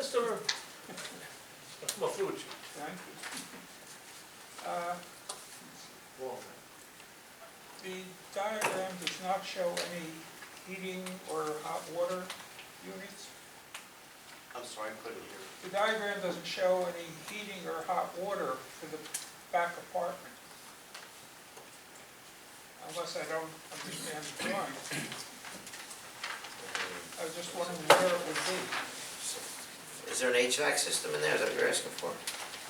sir. My food. Thank you. Uh, The diagram does not show any heating or hot water units. I'm sorry, I couldn't hear. The diagram doesn't show any heating or hot water for the back apartment. Unless I don't understand the drawing. I was just wondering where it would be. Is there an HVAC system in there? Is that what you're asking for?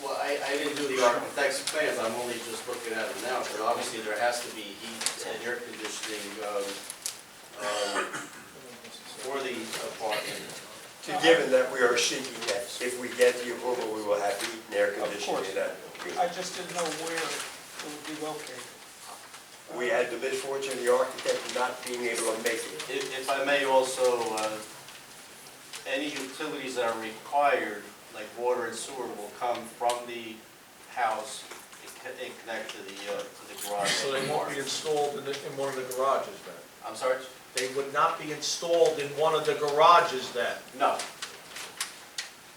Well, I, I didn't do the architect's plans, I'm only just looking at them now, but obviously there has to be heat and air conditioning, um, um, for the apartment. To Given that we are seeking that, if we get the approval, we will have heat and air conditioning. course. in that. I just didn't know where it would be located. We had the misfortune, of the architect not being able to make it. If, if I may also, uh, any utilities that are required, like water and sewer, will come from the house and co- and connect to the, uh, to the garage. So they won't be installed in, the- in one of the garages then? I'm sorry? They would not be installed in one of the garages then? No,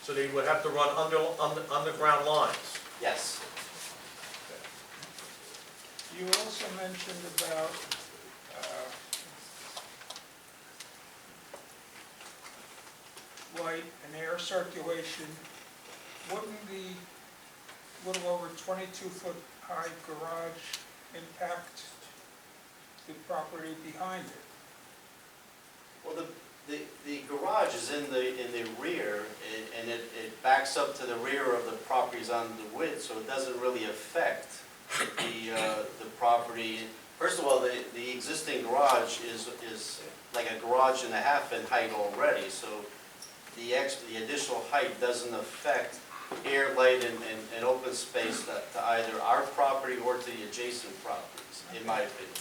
So they would have to run under, under, underground lines? yes. You also mentioned about, uh, light and air circulation. Wouldn't the little over twenty-two foot high garage impact the property behind it? Well, the, the, the garage is in the, in the rear, and- and it, it backs up to the rear of the properties on the width, so it doesn't really affect the, uh, the property. First of all, the, the existing garage is, is like a garage and a half in height already, so the ex, the additional height doesn't affect air, light, and, and, and open space that, to either our property or to the adjacent properties, in my opinion.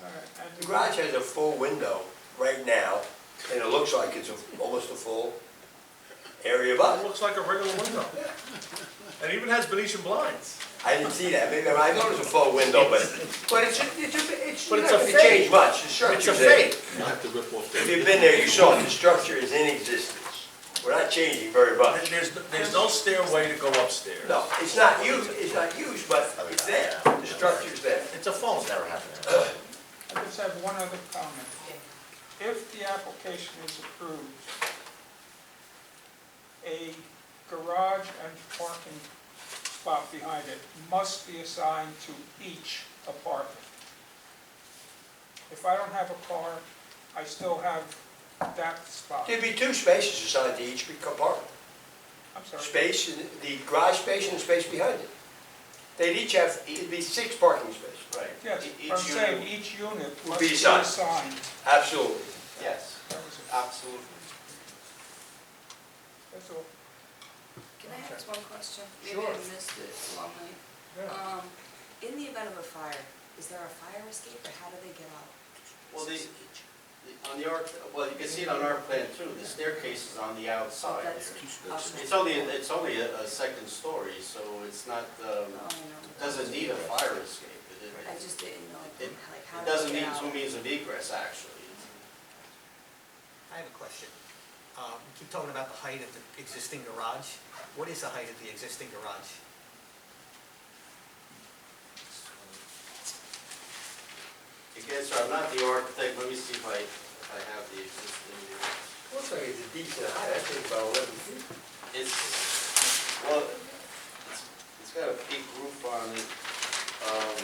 All right, Uh, and- The garage has a full window right now, and it looks like it's a- almost a full area, It but looks like a regular window. And even has Venetian blinds. I didn't see that. Maybe I thought it was a full window, but, but it's, it's, a- it's, But it's a it's not gonna fake. change much. The It's a structure's there. fake. If you've been there, you saw it. The structure is in existence. We're not changing very much. There- There's, there's no stairway to go upstairs. No, it's not used, it's not used, but it's there, the structure's there. It's a phone. Never happened. I just have one other comment. If the application is approved, a garage and parking spot behind it must be assigned to each apartment. If I don't have a car, I still have that spot. There'd be two spaces assigned to each compartment, I'm sorry. space, in- the garage space and the space behind it. They'd each have, it'd be six parking spaces. Right. Yes, E- each I'm unit- saying each unit Would must be be assigned. assigned. Absolutely. Yes, That was it. absolutely. That's all. Can I ask one question? Maybe Sure. I missed it it's a long night. Yeah. Um, in the event of a fire, is there a fire escape or how do they get out? Well, the, the- on the arch, well, you can see it on our plan too, the staircase is on the Oh, outside that's there. optional. It's only, it's only a, a second story, so it's not, um, Oh, I know. doesn't need a fire escape. It- it- I just didn't know, It- like, how It do they doesn't get need out? two means of egress, actually. I have a question. Um, You keep talking about the height of the existing garage. What is the height of the existing garage? Oh, Again, sir, I'm not the architect, let me see if I, if I have the existing. uh, Looks like it's a decent height, I think about eleven feet. It's, well, it's, it's got a peak roof on it. Um,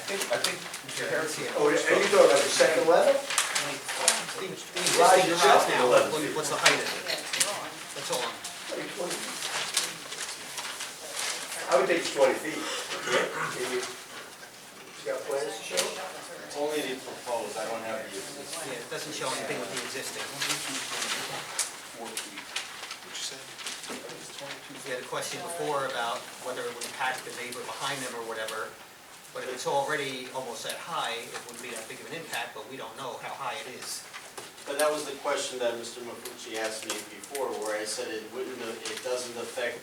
I think, I think, Mr. Harris, Here. Oh, are you talking about the second level? The the Garage existing garage itself is now, 11 what- feet. what's the height of Yeah, it? it's wrong. That's all. I'm- Like 20 feet. I would think it's twenty feet. Can you, you got plans to show? It's only the proposed, I don't have the existing. Yeah, it doesn't show anything with the existing. You had a question before about whether it would impact the neighbor behind them or whatever, but if it's already almost that high, it wouldn't be that big of an impact, but we don't know how high it is. But that was the question that Mr. Mafucci asked me before, where I said it wouldn't, it doesn't affect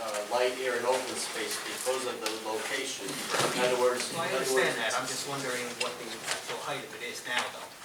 uh, light, air, and open space because of the location. In other words, in I other understand words, that, I'm just wondering what the actual height of it is now, though.